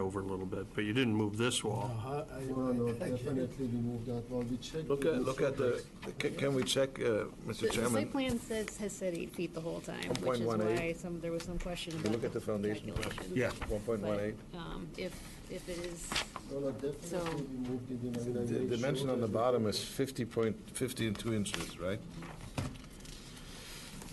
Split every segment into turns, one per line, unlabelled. over a little bit, but you didn't move this wall.
Uh, I-
No, no,
I- I-
definitely we moved that one, we checked.
Look
with
at, look at the, can- can we check, uh,
The
Mr.
the site
Chairman?
plan says, has said eight feet the whole time, which
1.18.
is why some, there was some question
you
about.
look at the foundation?
calculation.
Yeah.
One point one
But,
eight.
um, If, if it is,
No, no, definitely we moved it in. and I
The
made
dimension
sure
on the
that-
bottom is fifty point, fifty and two inches, right?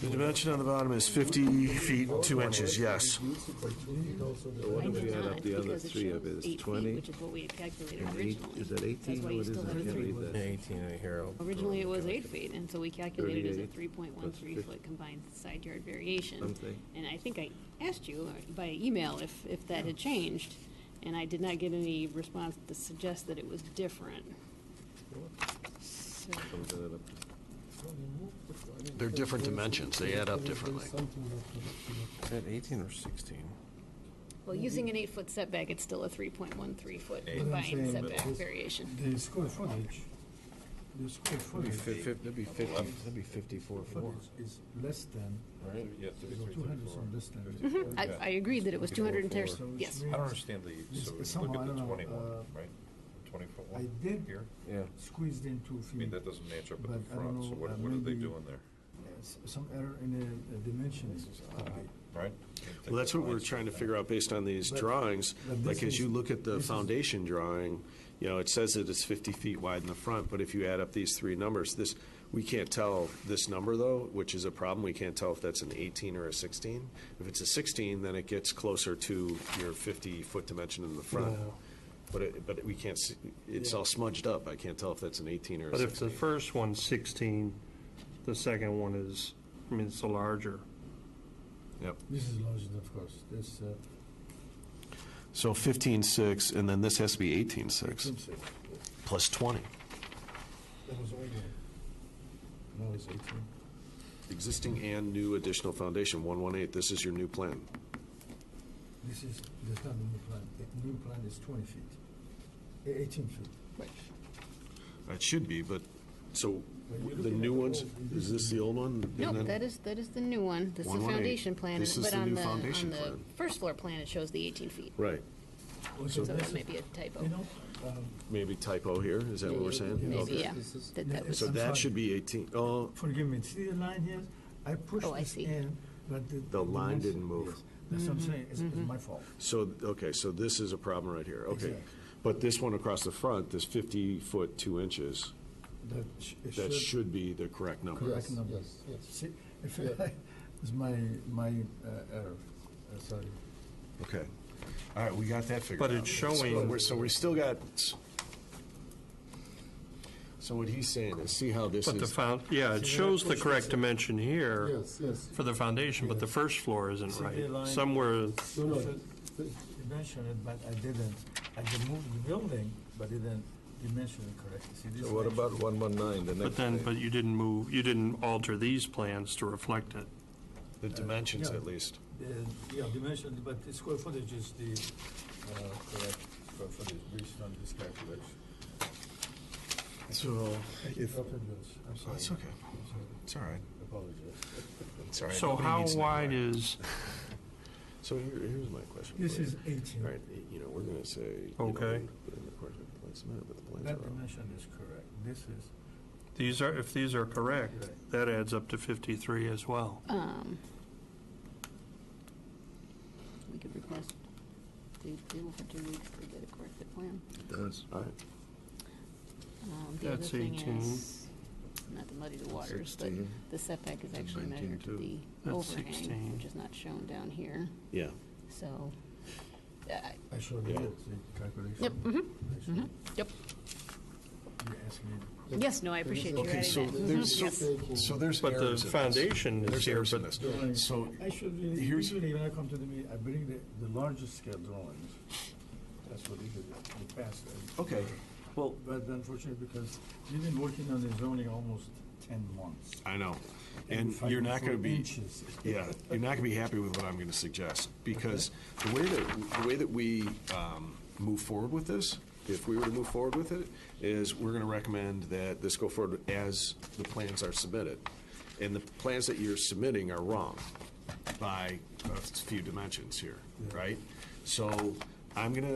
The dimension on the bottom is 50 feet, 2 inches, yes.
Reduce it by two feet also there.
What
I
if we
did
add up
not,
the other
because it
three of
shows
it? It's
eight
20,
feet, which is what we had calculated
and
originally.
eight- is that 18
That's why
or
you
what is
still
it? I
have
can't
three.
read that.
18 right here.
Originally, it was eight feet, and so we calculated it as a
38,
three point one
plus
three
50.
foot combined side yard variation.
Something.
And I think I asked you uh, by email if, if that had changed, and I did not get any response to suggest that it was different. So-
Comes in at a-
No, we moved it. I mean,
They're different
there's-
dimensions. They add up
there's
differently.
something
Mm-hmm.
that-
Is that 18 or 16?
Well,
Mm-hmm.
using an eight-foot setback, it's still a three point one three foot
Eight.
combined
Saying that
setback
this-
variation.
The square footage, the square
That'd be
footage,
fif- that'd be 50, that'd be 54 4,
footage is less than,
right? Yes,
two hundred is less than.
Mm-hmm. I, I agree that it was two hundred and ten,
So which
yes.
means
the,
Yes, somehow, I don't know, uh,
right? The twenty-foot
I did
Yeah.
squeezed in two feet,
doesn't match
but I don't know, uh, maybe
there,
uh, s- some error in the uh, dimensions.
right?
Well, that's what we're trying to figure out based on these drawings.
But
Like,
this
as you
is-
look at the
this is-
foundation drawing, you know, it says that it's 50 feet wide in the front, but if you add up these three numbers, this, we can't tell this number, though, which is a problem. We can't tell if that's an 18 or a 16. If it's a 16, then it gets closer to your 50-foot dimension in the front. But, it- but we can't, see- it's all smudged up. I can't tell if that's an 18 or a
But if the
16.
first one's 16, the second one is, I mean, it's a larger.
Yep.
This is larger, of course, this, uh,
So 15.6, and then this has to be 18.6,
six.
plus 20.
That was older. Now it's eighteen.
Existing and new additional foundation, 118, this is your new plan.
This is, that's not the new plan. The new plan is 20 feet, eh, 18 feet.
It should be, but, so,
But you're
the
looking
new
at the
ones,
old-
is this the old one?
No, that is, that is the new one, this is the
118.
foundation plan,
This
and-
is
but
the new
on the, on
foundation
the
plan.
first floor plan, it shows the eighteen feet.
Right,
So
this
that
is-
may be a typo.
You know, um,
maybe typo here, is that what we're saying?
Maybe,
Okay.
yeah. That- that was-
So
I'm
that
sorry.
should be 18, oh,
forgive me, see the line here? I pushed
Oh, I
this
see. Mm-hmm,
in, but the...
line
dimension-
didn't move.
yes, That's what I'm saying, it's it's my fault.
so, okay, so this is a problem right here, okay.
Exactly.
But this one across the front, this 50 foot 2 inches,
That sh- it
that should be the correct number.
Correct number.
Yes, yes.
See, if
Yeah.
I- It's my, my uh, error, Uh, sorry.
Okay, all right, we got that figured out.
But it's
So
showing-
we're- So we still got, so what he's saying is, see how this
But the
is,
found, yeah, it shows the correct dimension here
Yes, yes.
for the foundation, but the first floor isn't
See the line?
right. Somewhere,
No, no, th-
You mentioned it, but I didn't. I removed the building, but didn't dimension it correctly. See, this
So what
line-
about one one nine, the next
but then,
page?
but you didn't move, you didn't alter these plans to reflect it.
the dimensions
yeah.
at least.
The- uh, Yeah, dimension, but the square footage is the uh, correct square footage based on this calculation.
So, if,
Apologies, I'm sorry.
That's okay.
I'm sorry.
It's all right.
Apologize.
It's all right.
So
Nobody
how
needs to know
wide
why.
is,
So here, here's my question.
This
for you.
is 18.
All right, you know, we're gonna say. you know,
Okay.
in the course of the plans, no, but the plans
That
are wrong.
dimension is correct. This is,
these are, if these are correct, that adds up to 53 as well.
Um, we could request, they, they will have to wait to get a corrected plan.
It does.
All right,
Um, the other
That's
thing
18.
is, not to muddy the waters, but
16.
the setback is actually
19
measured to
too.
the
That's
overhang,
16.
which is not shown down here,
yeah.
so, uh,
I showed you
Yeah.
the calculation.
Yep, mhm,
I showed you.
yep,
You asked me.
yes, no, I appreciate you
Okay,
adding
so
that.
there's,
Mhm, yes.
so- so there's
But the
errors in this.
foundation is
There's
here,
errors in
but-
this. So,
I should, really-
Here's-
usually when I come to the meeting, I bring the, the largest scale drawings. That's what usually, the past. I-
okay, well,
But unfortunately, because we've been working on the zoning almost 10 months.
I know. And
fighting
you're not
for
gonna be,
Inches.
yeah, you're not gonna be happy with what I'm gonna suggest, because the way that, the way that we, um, move forward with this, if we were to move forward with it, is we're gonna recommend that this go forward as the plans are submitted. And the plans that you're submitting are wrong by a few dimensions here, right? So I'm gonna